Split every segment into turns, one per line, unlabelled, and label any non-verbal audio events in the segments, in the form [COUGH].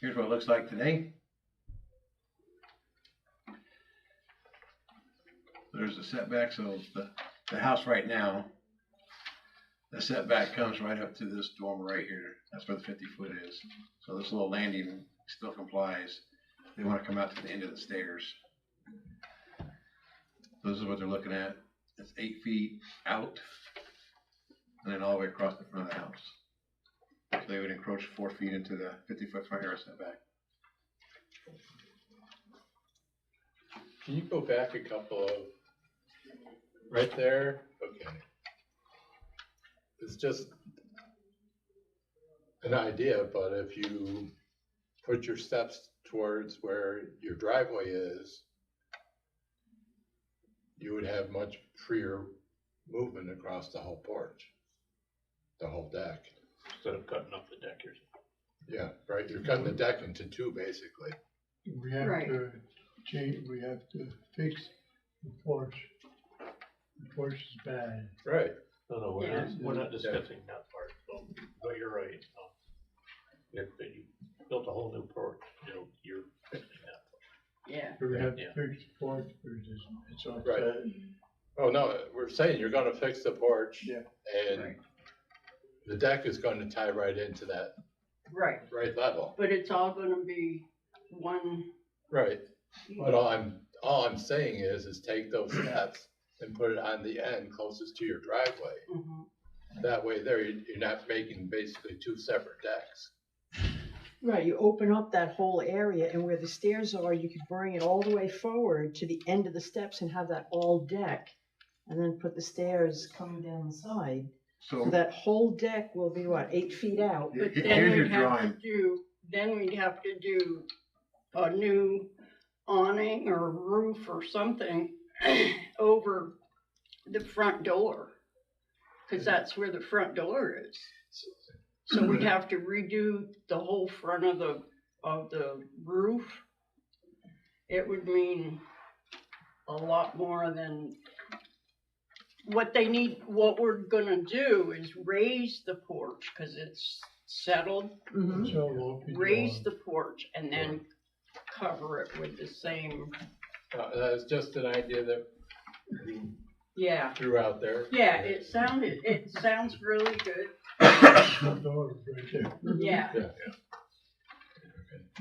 Here's what it looks like today. There's the setback, so the, the house right now, the setback comes right up to this dormer right here. That's where the fifty foot is. So this little landing still complies. They wanna come out to the end of the stairs. This is what they're looking at. It's eight feet out and then all the way across the front of the house. So they would encroach four feet into the fifty-foot front yard setback.
Can you go back a couple of, right there, okay. It's just an idea, but if you put your steps towards where your driveway is, you would have much freer movement across the whole porch, the whole deck.
instead of cutting up the deck here.
Yeah, right, you're cutting the deck into two, basically.
We have
Right.
to change, we have to fix the porch. The porch is bad.
Right.
No, no, we're
Yeah.
not, we're not discussing that part, so, but you're right, so. If you built a whole new porch, you know, you're fixing that.
Yeah,
We have to
Yeah.
fix the porch, because it's, it's all
Right.
bad.
Oh, no, we're saying you're gonna fix the porch.
Yeah.
And
Right.
the deck is gonna tie right into that
right,
right level.
but it's all gonna be one,
Right. But all I'm, all I'm saying is, is take those steps and put it on the end closest to your driveway.
Mhm.
That way there, you- you're not making basically two separate decks.
Right, you open up that whole area and where the stairs are, you could bring it all the way forward to the end of the steps and have that all deck. And then put the stairs coming down the side. So
So
that whole deck will be what, eight feet out?
he-
but
he-
then
here's your
we'd have
drawing.
to do, then we'd have to do a new awning or roof or something [CLEARS THROAT] over the front door, cause that's where the front door is. So we'd have to redo the whole front of the, of the roof. It would mean a lot more than what they need, what we're gonna do is raise the porch, cause it's settled.
Mhm.
So it won't be
Mm-hmm. Raise
long.
the porch and then cover it with the same,
Uh, that was just an idea that we
yeah.
threw out there.
Yeah, it sounded, it sounds really good,
The door is right there,
yeah,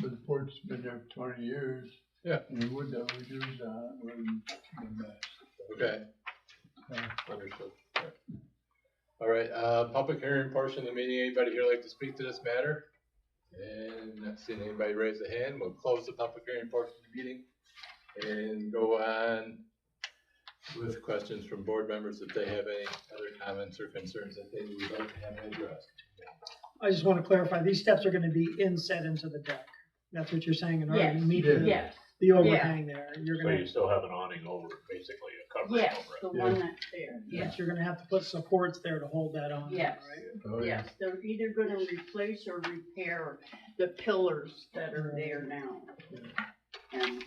but the porch has been there twenty years.
Yeah.
And the wood that we use, uh, wouldn't be the best.
Okay.
Yeah.
Understood. Yeah. All right, uh, public hearing portion of the meeting, anybody here like to speak to this matter? And not seeing anybody raise a hand, we'll close the public hearing portion of the meeting and go on with questions from board members if they have any other comments or concerns that they would like to have addressed.
I just want to clarify, these steps are going to be inset into the deck. That's what you're saying, in order to
Yes.
meet the,
yes,
the overhang there. You're
So
going
you
to,
still have an awning over, it, basically a covering
yes,
over it.
the one that's there, yes.
yes, you're going to have to put supports there to hold that on.
Yes.
right?
Oh, yeah.
Yes, they're either gonna replace or repair the pillars that are there now. And,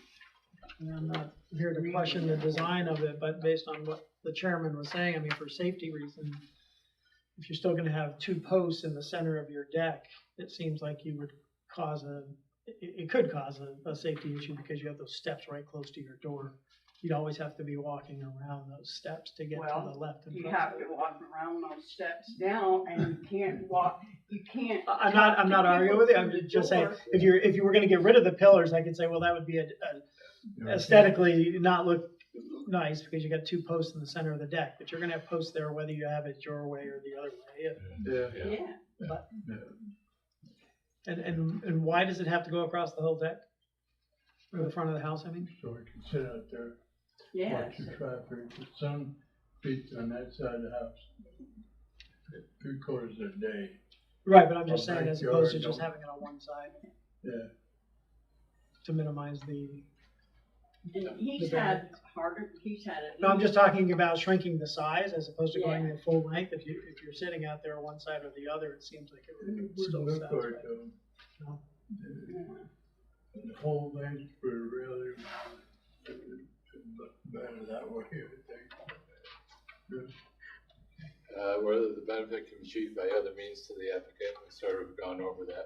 And I'm not here to question the design of it, but based on what the chairman was saying, I mean, for safety reasons, if you're still gonna have two posts in the center of your deck, it seems like you would cause a, it, it could cause a, a safety issue because you have those steps right close to your door. You'd always have to be walking around those steps to get to
Well,
the left and
you
front.
have to walk around those steps now and you
[LAUGHS]
can't walk, you can't.
I- I'm not, I'm not arguing with you, I'm just saying, if you're, if you were gonna get rid of the pillars, I could say, well, that would be a, a aesthetically not look nice because you got two posts in the center of the deck, but you're gonna have posts there whether you have it your way or the other way.
Yeah,
Yeah,
Yeah,
And, and, and why does it have to go across the whole deck? Or the front of the house, I mean?
so we can sit out there,
yeah,
watch the traffic, but some feet on that side of the house. Three quarters of the day,
Right, but I'm just
Well,
saying as
backyard,
opposed to just
don't-
having it on one side
yeah.
to minimize the,
and he's had harder, he's had it.
no, I'm just talking about shrinking the size as opposed to going
Yeah.
the full length. If you, if you're sitting out there on one side or the other, it seems like it
It
would
wouldn't
still
look
satisfy.
like them.
No.
The the whole thing would really, it would look better that way, I think.
uh, whether the benefit can be achieved by other means to the applicant, we've sort of gone over that.